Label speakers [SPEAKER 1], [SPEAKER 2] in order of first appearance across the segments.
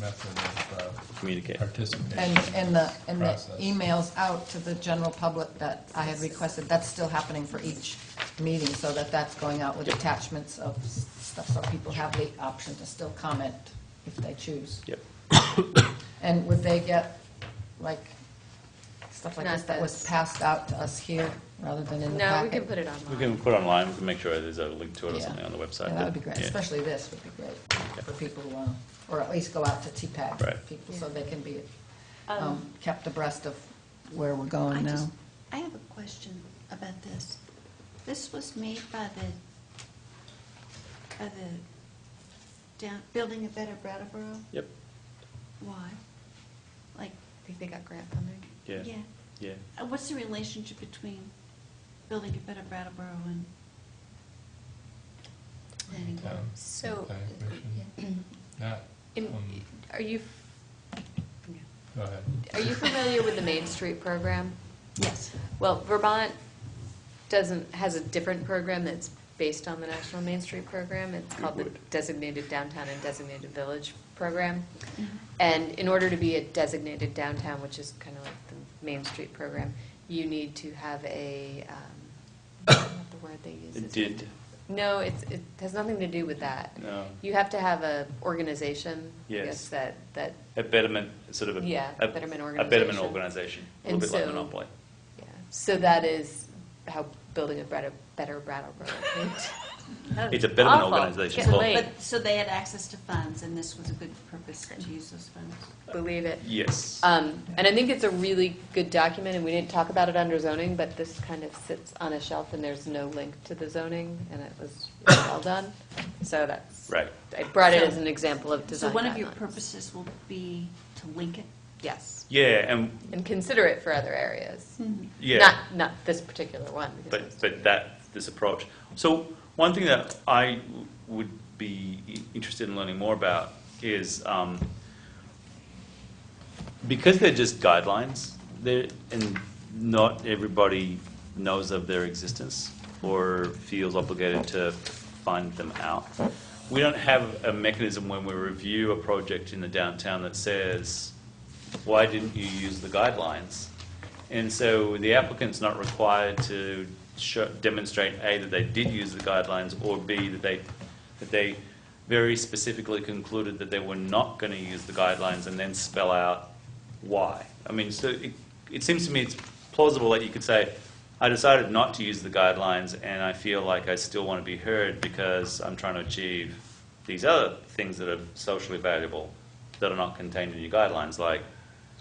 [SPEAKER 1] method of uh,
[SPEAKER 2] communicate.
[SPEAKER 1] participation.
[SPEAKER 3] And, and the, and the
[SPEAKER 1] Process.
[SPEAKER 3] emails out to the general public that I had requested, that's still happening for each meeting, so that that's going out with attachments of s- stuff, so people have the option to still comment if they choose.
[SPEAKER 2] Yep.
[SPEAKER 3] And would they get, like, stuff like
[SPEAKER 4] Not
[SPEAKER 3] this that was
[SPEAKER 4] this.
[SPEAKER 3] passed out to us here, rather than in the
[SPEAKER 4] No, we
[SPEAKER 3] packet?
[SPEAKER 4] can put it
[SPEAKER 2] We
[SPEAKER 4] online.
[SPEAKER 2] can put it online, we can make sure there's a link to it or
[SPEAKER 3] Yeah.
[SPEAKER 2] something on the website.
[SPEAKER 3] Yeah, that would be great,
[SPEAKER 2] Yeah.
[SPEAKER 3] especially this would be great for people who, want, or at least go out to TPAC.
[SPEAKER 2] Right.
[SPEAKER 3] People, so they can be
[SPEAKER 5] Um,
[SPEAKER 3] um, kept abreast of where we're
[SPEAKER 5] I
[SPEAKER 3] going
[SPEAKER 5] just-
[SPEAKER 3] now.
[SPEAKER 5] I have a question about this. This was made by the, by the down, Building a Better Brattleboro?
[SPEAKER 2] Yep,
[SPEAKER 5] Why? Like,
[SPEAKER 4] Think they got grant funding?
[SPEAKER 2] yeah,
[SPEAKER 5] yeah.
[SPEAKER 2] yeah.
[SPEAKER 5] Uh, What's the relationship between Building a Better Brattleboro and planning board?
[SPEAKER 1] Town-
[SPEAKER 4] So-
[SPEAKER 1] Planning Commission. Not,
[SPEAKER 4] And
[SPEAKER 1] um,
[SPEAKER 4] are you,
[SPEAKER 1] go ahead.
[SPEAKER 4] are you familiar with the Main Street program?
[SPEAKER 5] Yes.
[SPEAKER 4] Well, Vermont doesn't, has a different program that's based on the National Main Street Program. It's called the Designated Downtown and Designated Village Program.
[SPEAKER 5] Mhm.
[SPEAKER 4] And in order to be a designated downtown, which is kind of like the Main Street Program, you need to have a, um, I don't know what the word they use.
[SPEAKER 2] A
[SPEAKER 4] is.
[SPEAKER 2] did. uh,
[SPEAKER 4] No, it's, it has nothing to do with that.
[SPEAKER 2] No.
[SPEAKER 4] You have to have a organization, I
[SPEAKER 2] Yes.
[SPEAKER 4] guess, that, that,
[SPEAKER 2] A betterment, sort of a.
[SPEAKER 4] Yeah,
[SPEAKER 2] a-
[SPEAKER 4] betterment
[SPEAKER 2] A betterment
[SPEAKER 4] organization.
[SPEAKER 2] organization, a little
[SPEAKER 4] And
[SPEAKER 2] bit like
[SPEAKER 4] so- uh,
[SPEAKER 2] Monopoly.
[SPEAKER 4] yeah. So that is how building a better, better Brattleboro.
[SPEAKER 2] It's a betterment
[SPEAKER 4] Awful.
[SPEAKER 2] organization.
[SPEAKER 4] Get
[SPEAKER 2] Well,
[SPEAKER 4] laid.
[SPEAKER 5] But, so they had access to funds, and this was a good purpose to use those funds?
[SPEAKER 4] Believe it.
[SPEAKER 2] Yes.
[SPEAKER 4] Um, and I think it's a really good document, and we didn't talk about it under zoning, but this kind of sits on a shelf, and there's no link to the zoning, and it was really well done. So that's.
[SPEAKER 2] Right.
[SPEAKER 4] I brought it
[SPEAKER 5] So-
[SPEAKER 4] as an example of
[SPEAKER 5] So
[SPEAKER 4] design
[SPEAKER 5] one of your
[SPEAKER 4] guidelines.
[SPEAKER 5] purposes will be to link it?
[SPEAKER 4] Yes,
[SPEAKER 2] Yeah, and,
[SPEAKER 4] and consider it for other
[SPEAKER 5] Hmm.
[SPEAKER 4] areas.
[SPEAKER 2] yeah,
[SPEAKER 4] Not, not this particular one. because
[SPEAKER 2] but,
[SPEAKER 4] it's-
[SPEAKER 2] but that, this approach. So one thing that I w- would be i- interested in learning more about is, um, because they're just guidelines, they're, and not everybody knows of their existence or feels obligated to find them out. We don't have a mechanism when we review a project in the downtown that says, why didn't you use the guidelines? And so the applicant's not required to show, demonstrate, A, that they did use the guidelines, or B, that they, that they very specifically concluded that they were not going to use the guidelines and then spell out why. I mean, so it, it seems to me it's plausible that you could say, I decided not to use the guidelines and I feel like I still want to be heard because I'm trying to achieve these other things that are socially valuable that are not contained in your guidelines, like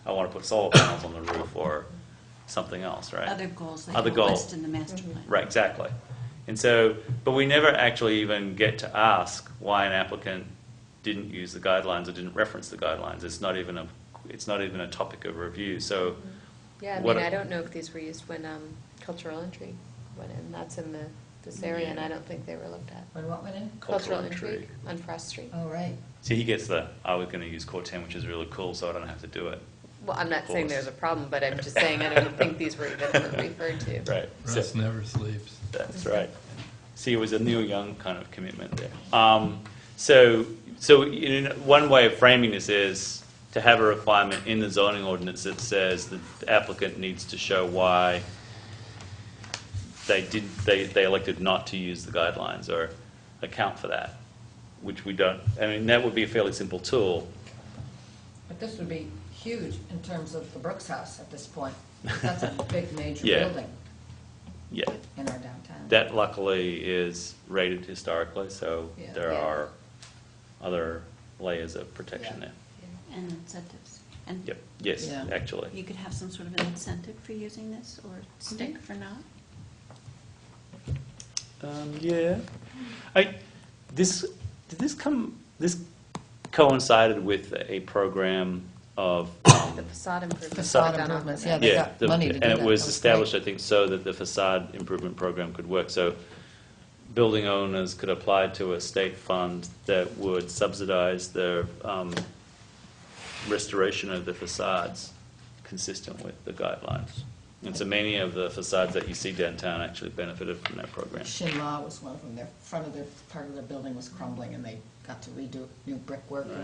[SPEAKER 2] I want to put solar panels on the roof or something else, right?
[SPEAKER 5] Other goals that
[SPEAKER 2] Other
[SPEAKER 5] you list
[SPEAKER 2] goals.
[SPEAKER 5] in the master plan?
[SPEAKER 2] Right, exactly. And so, but we never actually even get to ask why an applicant didn't use the guidelines or didn't reference the guidelines. It's not even a, it's not even a topic of review. So,
[SPEAKER 4] Yeah, I
[SPEAKER 2] What-
[SPEAKER 4] mean, I don't know if these were used when um, cultural entry went in. That's in the, this area, and I don't think they were looked at.
[SPEAKER 3] When what went in?
[SPEAKER 2] Cultural intrigue.
[SPEAKER 4] on Frost Street.
[SPEAKER 3] Oh, right.
[SPEAKER 2] see, he gets the, I was going to use Core 10, which is really cool, so I don't have to do it.
[SPEAKER 4] Well, I'm not saying
[SPEAKER 2] Course.
[SPEAKER 4] there's a problem, but I'm just saying I don't think these were even referred to.
[SPEAKER 2] Right. So-
[SPEAKER 1] Russ never sleeps.
[SPEAKER 2] That's right. See, it was a Neil Young kind of commitment there. Um, so, so in one way of framing this is to have a requirement in the zoning ordinance that says that the applicant needs to show why they did, they, they elected not to use the guidelines or account for that, which we don't, I mean, that would be a fairly simple tool.
[SPEAKER 3] But this would be huge in terms of the Brooks House at this point. That's a big, major
[SPEAKER 2] Yeah.
[SPEAKER 3] building
[SPEAKER 2] Yeah,
[SPEAKER 3] in our downtown.
[SPEAKER 2] that luckily is rated historically, so
[SPEAKER 3] Yeah.
[SPEAKER 2] there
[SPEAKER 3] Yeah.
[SPEAKER 2] are other layers of protection there.
[SPEAKER 5] And incentives? And
[SPEAKER 2] Yep, yes,
[SPEAKER 3] Yeah.
[SPEAKER 2] actually.
[SPEAKER 5] You could have some sort of an incentive for using this, or stick for not?
[SPEAKER 2] Um, yeah. I, this, did this come, this coincided with a program of,
[SPEAKER 4] The
[SPEAKER 2] um,
[SPEAKER 4] facade improvements.
[SPEAKER 3] Facade
[SPEAKER 4] that got on
[SPEAKER 3] improvements,
[SPEAKER 4] there.
[SPEAKER 3] Yeah, they got
[SPEAKER 2] the-
[SPEAKER 3] money to do
[SPEAKER 2] And
[SPEAKER 3] that.
[SPEAKER 2] it was
[SPEAKER 3] That was
[SPEAKER 2] established, I
[SPEAKER 3] great.
[SPEAKER 2] think, so that the facade improvement program could work. So building owners could apply to a state fund that would subsidize the um, restoration of the facades consistent with the guidelines. And so many of the facades that you see downtown actually benefited from that program.
[SPEAKER 3] Shinla was one of them. Their, front of their, part of their building was crumbling, and they got to redo new brickwork